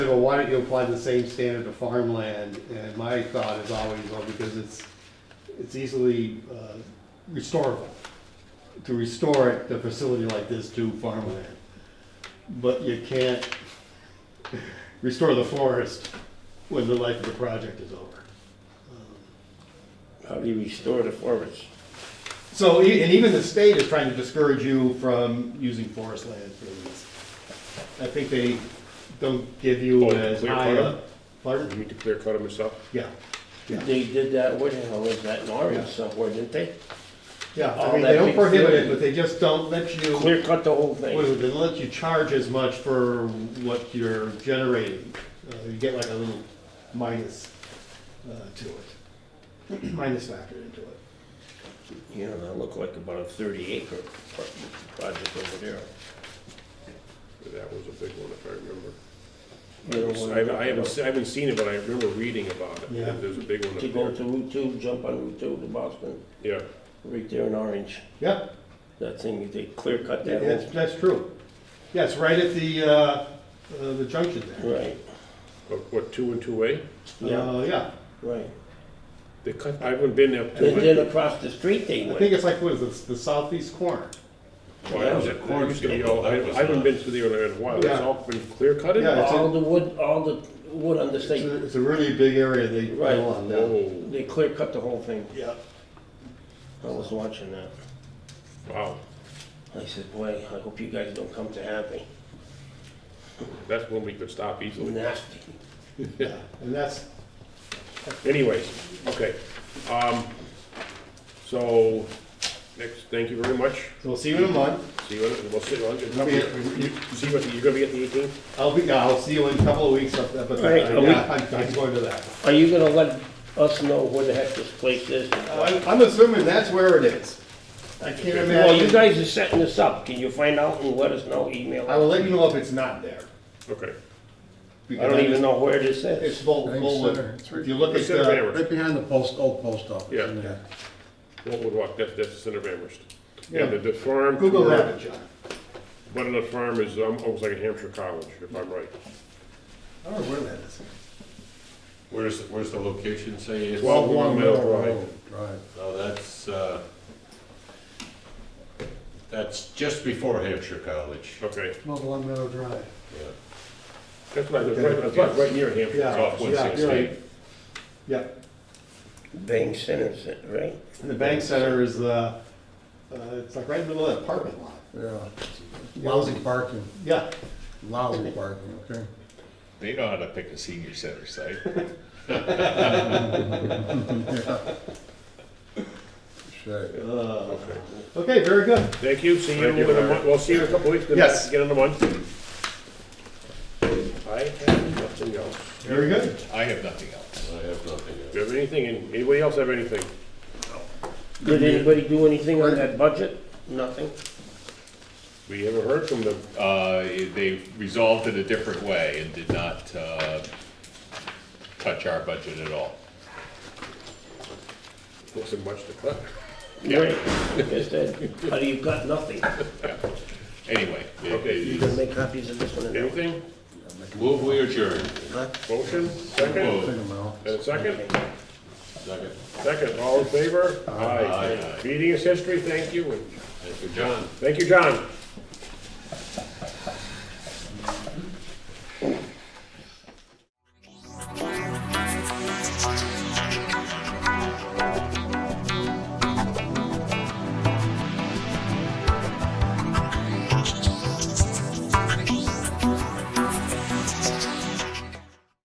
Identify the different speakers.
Speaker 1: well, why don't you apply the same standard to farmland? And my thought is always, well, because it's, it's easily uh, restorable. To restore it, the facility like this to farmland. But you can't restore the forest when the life of the project is over.
Speaker 2: How do you restore the forest?
Speaker 1: So, e- and even the state is trying to discourage you from using forest land for this. I think they don't give you
Speaker 3: Oh,
Speaker 1: as
Speaker 3: clear
Speaker 1: high
Speaker 3: cut?
Speaker 1: a, pardon?
Speaker 3: You need to clear cut them yourself?
Speaker 1: Yeah, yeah.
Speaker 2: They did that, what the hell was that, in Oregon somewhere, didn't they?
Speaker 1: Yeah, I
Speaker 2: All
Speaker 1: mean,
Speaker 2: that
Speaker 1: they don't
Speaker 2: big
Speaker 1: prohibit it,
Speaker 2: field.
Speaker 1: but they just don't let you, what
Speaker 2: Clear cut the whole
Speaker 1: is
Speaker 2: thing.
Speaker 1: it, they don't let you charge as much for what you're generating. Uh, You get like a little minus uh, to it, minus factor into it.
Speaker 2: You know, that looked like about a thirty acre pro- project over there.
Speaker 3: That was a big one, if I remember.
Speaker 2: You know, when-
Speaker 3: I I haven't, se- I haven't seen it, but I remember reading about it.
Speaker 1: Yeah.
Speaker 3: There's a big one
Speaker 2: To go
Speaker 3: up
Speaker 2: to
Speaker 3: there.
Speaker 2: Route two, jump on Route two to Boston,
Speaker 3: Yeah,
Speaker 2: right there in Orange.
Speaker 1: Yeah,
Speaker 2: That thing, they clear cut that
Speaker 1: that's,
Speaker 2: whole,
Speaker 1: that's true. Yeah, it's right at the, uh, uh, the junction there.
Speaker 2: right,
Speaker 3: What- what, two and two A?
Speaker 2: yeah,
Speaker 1: Uh, Yeah.
Speaker 2: right.
Speaker 3: They cut, I haven't been there.
Speaker 2: And then across the street they
Speaker 1: I
Speaker 2: went.
Speaker 1: think it's like, what is it, the southeast corner?
Speaker 3: Well,
Speaker 2: Yeah.
Speaker 3: that- that used to be all- I I haven't been to there in a while, it's
Speaker 1: Yeah.
Speaker 3: all been clear cutted?
Speaker 1: Yeah.
Speaker 2: All the wood, all the wood on the
Speaker 1: It's
Speaker 2: state,
Speaker 1: a, it's a really big area they
Speaker 2: Right. Oh.
Speaker 1: go
Speaker 3: Oh,
Speaker 1: on now.
Speaker 3: Whoa,
Speaker 2: they clear cut the whole thing.
Speaker 1: Yeah.
Speaker 2: I was watching that.
Speaker 3: wow,
Speaker 2: I said, boy, I hope you guys don't come to Hadley.
Speaker 3: that's when we could stop easily.
Speaker 2: Nasty.
Speaker 1: Yeah, and that's,
Speaker 3: Anyways, okay, um, so, next, thank you very much.
Speaker 1: so we'll see you in a month.
Speaker 3: See you, in- we'll sit on,
Speaker 1: Yeah.
Speaker 3: see what, you're gonna be at the eighteenth?
Speaker 1: I'll be, yeah, I'll see you in a couple of weeks up there, but uh,
Speaker 2: Right, a week.
Speaker 1: yeah, I'm, I'm going to that.
Speaker 2: Are you gonna let us know where the heck this place is?
Speaker 1: I'm, I'm assuming that's where it is. I can't
Speaker 2: Well, you
Speaker 1: imagine,
Speaker 2: guys are setting this up. Can you find out and let us know, email?
Speaker 1: I will let you know if it's not there.
Speaker 3: Okay.
Speaker 2: I don't even know where this
Speaker 1: It's
Speaker 2: is.
Speaker 1: Bull,
Speaker 4: Thanks,
Speaker 1: Bullwood.
Speaker 4: sir. It's
Speaker 1: If you look at,
Speaker 3: Center
Speaker 1: uh,
Speaker 3: Amherst,
Speaker 4: Right behind the post, old post office.
Speaker 3: Yeah.
Speaker 4: in there.
Speaker 3: what would walk, that's, that's the center of Amherst. Yeah,
Speaker 1: Yeah.
Speaker 3: the, the farm.
Speaker 1: Google
Speaker 3: tour-
Speaker 1: that, it, John.
Speaker 3: One of the farm is um, almost like a Hampshire college, if I'm right.
Speaker 1: I don't know where that is.
Speaker 5: Where's, where's the location say? it's-
Speaker 3: Twelve one Mill Drive.
Speaker 4: Road, Drive.
Speaker 5: Oh, that's, uh, that's just before Hampshire College.
Speaker 3: Okay,
Speaker 4: Not Long Meadow Drive.
Speaker 5: Yeah.
Speaker 3: that's right, that's right, that's right, right near Hampshire.
Speaker 1: Yeah,
Speaker 5: Off one
Speaker 1: yeah, you're right.
Speaker 5: sixty.
Speaker 1: Yeah,
Speaker 2: Bang Center, is it, right?
Speaker 1: and the bank center is, uh, uh, it's like right in the middle of that apartment lot.
Speaker 4: Yeah. Lousy parking,
Speaker 1: Yeah,
Speaker 4: lousy parking, okay?
Speaker 6: They know how to pick a senior center site.
Speaker 4: Shit.
Speaker 1: uh,
Speaker 3: Okay.
Speaker 1: okay, very good.
Speaker 3: Thank you, see you in
Speaker 5: Thank
Speaker 3: a
Speaker 5: you, Larry.
Speaker 3: month, we'll see you in a couple weeks. then
Speaker 1: Yes.
Speaker 3: Get in the month. I have nothing else.
Speaker 1: Very good.
Speaker 6: I have nothing else.
Speaker 5: I have nothing else.
Speaker 3: Do you have anything, and anybody else have anything?
Speaker 2: Did anybody do anything on that budget? Nothing?
Speaker 3: We haven't heard from them.
Speaker 6: Uh, they resolved it a different way and did not, uh, touch our budget at all.
Speaker 3: Wasn't much to cut.
Speaker 2: Right. Yes, then. How do you got nothing?
Speaker 6: Anyway,
Speaker 2: You
Speaker 3: Okay,
Speaker 2: gonna make copies of this one and that one?
Speaker 3: anything?
Speaker 5: Move, we adjourn.
Speaker 3: Motion, second?
Speaker 4: Take 'em out.
Speaker 3: And second?
Speaker 5: Second.
Speaker 3: Second, all in favor?
Speaker 5: Aye.
Speaker 3: Meeting is history, thank you, and
Speaker 5: Thank you, John.
Speaker 3: thank you, John.